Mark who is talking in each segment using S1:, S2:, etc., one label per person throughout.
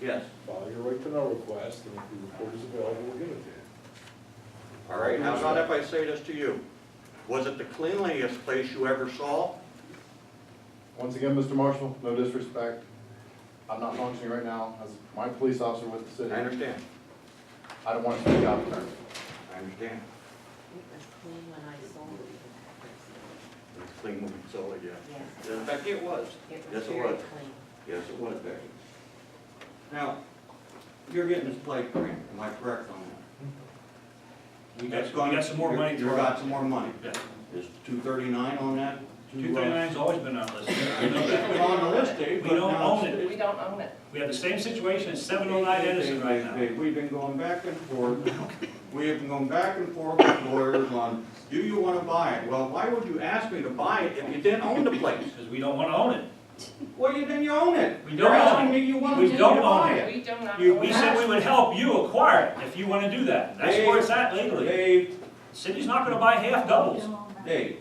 S1: Yes.
S2: File your right to know request, and if the report is available, we'll give it to you.
S1: All right, how about if I say this to you? Was it the cleanliest place you ever saw?
S3: Once again, Mr. Marshall, no disrespect. I'm not functioning right now as my police officer with the
S1: I
S3: city.
S1: understand,
S3: I don't want to be out there.
S1: I understand.
S4: It was clean when I sold it.
S1: It was a clean when you saw it, yeah.
S4: Yes.
S1: In fact, it was.
S4: It
S1: Yes, it
S4: was very
S1: was.
S4: clean.
S1: Yes, it was, Becky. Now, you're getting this plate grant, am I correct on that?
S5: We got- we got some more money to-
S1: You got some more money.
S5: Yeah.
S1: Is two thirty-nine on that?
S5: Two thirty-nine's always been on this. We know
S1: It's
S5: that.
S1: been on the list, Dave,
S5: We
S1: but
S5: don't
S1: now
S5: own
S1: it's-
S4: We don't own it.
S5: We have the same situation at seven oh nine Edison right now.
S1: Dave, We've been going back and forth, we have been going back and forth with lawyers on, do you wanna buy it? Well, why would you ask me to buy it if you didn't own the place?
S5: Because we don't want to own it.
S1: Well, you, then you own it.
S5: We don't
S1: You're
S5: own it.
S1: asking me you want
S5: We
S1: me to
S5: don't own
S1: buy
S5: it.
S1: it.
S4: We do not.
S1: You-
S4: own
S5: We
S4: it.
S5: said we would help you acquire it if you want to do that. That's where it's at legally.
S1: Dave,
S5: City's not going to buy half doubles.
S1: Dave.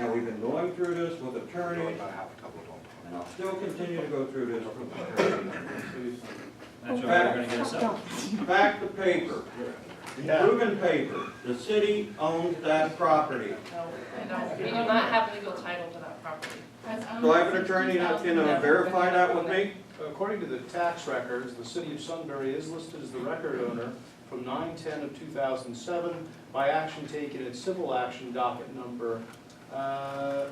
S1: Now, we've been going through this with attorneys, and I'll still continue to go through this with attorneys.
S5: That's where we're going to get us up.
S1: Back to paper, proven paper, the city owns that property.
S4: No, we don't. We do not have legal title to that property.
S1: Do I have an attorney that can uh, verify that with me?
S6: According to the tax records, the city of Sunbury is listed as the record owner from 9/10 of 2007 by action taken in civil action docket number uh,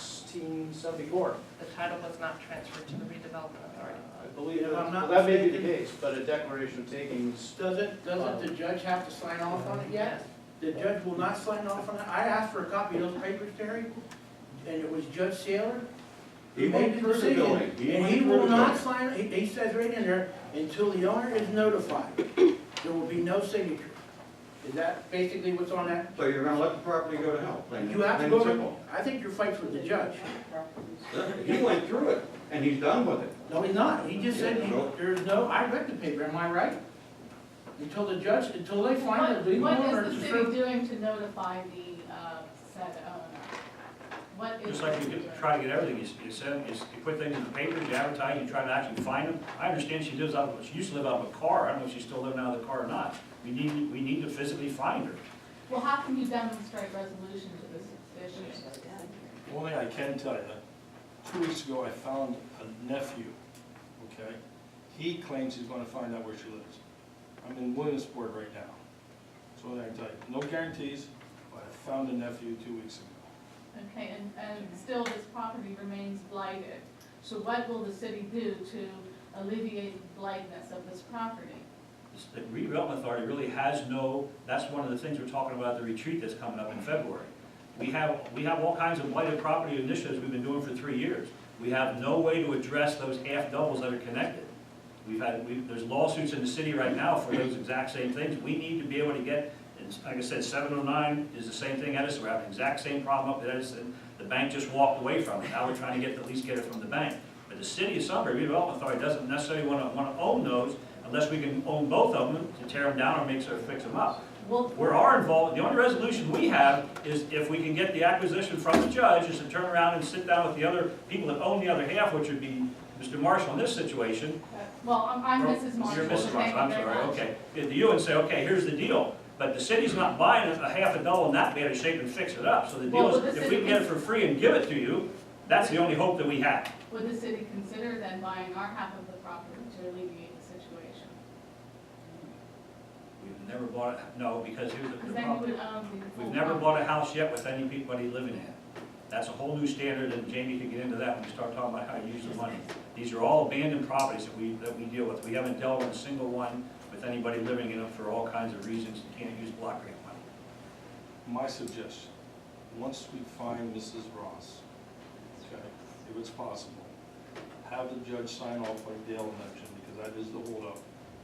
S6: 071674.
S4: The title was not transferred to the redevelopment
S6: I
S4: authority.
S6: believe,
S7: If I'm
S6: well,
S7: not
S6: that may be the
S7: mistaken-
S6: case, but a declaration of takings,
S7: Doesn't, doesn't the judge have to sign off on it yet? The judge will not sign off on it? I asked for a copy of those papers, Terry, and it was Judge Saylor.
S1: He
S7: who made
S1: went through the
S7: decision.
S1: building.
S7: And
S1: went
S7: he
S1: through
S7: will
S1: the
S7: not
S1: building.
S7: sign, he, he says right in there, until the owner is notified, there will be no signature. Is that basically what's on that?
S1: So you're gonna let the property go to hell? plain-
S7: You have to
S1: plain
S7: go,
S1: and
S7: over- I think your fight's with the judge.
S1: simple. He went through it, and he's done with it.
S7: No, he's not. He just said,
S1: Yeah, no.
S7: there's no, I read the paper, am I right? Until the judge, until they find the legal
S8: What,
S7: owner.
S8: what is the
S7: to serve-
S8: city doing to notify the, uh, said owner? What is?
S5: Just like
S8: the
S5: you
S8: city
S5: get-
S8: doing?
S5: try to get everything, you s- you send, you s- you put things in the papers, you advertise, you try to actually find them. I understand she lives out, she used to live out of a car, I don't know if she's still living out of the car or not. We need, we need to physically find her.
S8: Well, how can you demonstrate resolution to this issue?
S9: Only I can tell you, two weeks ago, I found a nephew, okay? He claims he's gonna find out where she lives. I'm in Williamsport right now. So I can tell you, no guarantees, but I found a nephew two weeks ago.
S8: Okay, and, and still this property remains blighted. So what will the city do to alleviate blightness of this property?
S5: The redevelopment authority really has no, that's one of the things we're talking about, at the retreat that's coming up in February. We have, we have all kinds of blighted property initiatives we've been doing for three years. We have no way to address those half doubles that are connected. We've had, we, there's lawsuits in the city right now for those exact same things. We need to be able to get, and like I said, seven oh nine is the same thing Edison, we're having the exact same problem up at Edison. The bank just walked away from it, now we're trying to get, at least get it from the bank. But the city of Sunbury redevelopment authority doesn't necessarily wanna, wanna own those unless we can own both of them to tear them down or make, or fix them up.
S8: Will,
S5: Where our involvement, the only resolution we have is if we can get the acquisition from the judge, is to turn around and sit down with the other people that own the other half, which would be Mr. Marshall in this situation,
S8: uh, well, I'm, I'm Mrs. Marshall.
S5: Oh, you're Mrs. Marshall, I'm
S8: Thank you very
S5: sorry,
S8: much.
S5: okay. Get to you and say, okay, here's the deal, but the city's not buying a half a double in that bad a shape and fix it up, so the
S8: Well,
S5: deal
S8: but
S5: is,
S8: the
S5: if we
S8: city
S5: can get it
S8: can-
S5: for free and give it to you, that's the only hope that we have.
S8: Would the city consider then buying our half of the property to alleviate the situation?
S5: We've never bought, a- no, because here's the-
S8: Because
S5: the
S8: then
S5: problem.
S8: we would own the.
S5: We've
S8: full
S5: never
S8: property.
S5: bought a house yet with anybody living in it. That's a whole new standard, and Jamie can get into that when we start talking about how you use the money. These are all abandoned properties that we, that we deal with. We haven't dealt with a single one with anybody living in them for all kinds of reasons, you can't use block grant money.
S9: My suggestion, once we find Mrs. Ross, okay, if it's possible, have the judge sign off like Dale mentioned, because that is the holdup.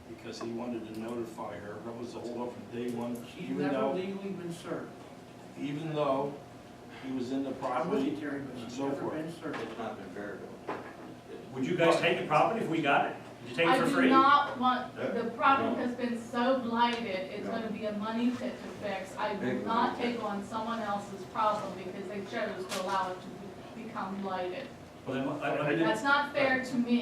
S9: Because he wanted to notify her, that was the holdup from day one,
S7: She's
S9: even
S7: never
S9: though,
S7: legally been served.
S9: even though he was in the
S7: I'm with you,
S9: property.
S7: Terry, but she's
S9: So
S7: never
S9: forth.
S7: been served.
S1: It's not been verified.
S5: Would you guys take the property if we got it? Would you take it
S8: I
S5: for
S8: do
S5: free?
S8: not want, the
S1: No.
S8: property has been so blighted, it's
S1: No.
S8: gonna be a money pit to fix. I
S1: Big
S8: will not
S1: money.
S8: take on someone else's problem because they chose to allow it to become blighted.
S5: Well, then, let- let me-
S9: I didn't-
S8: That's not fair to me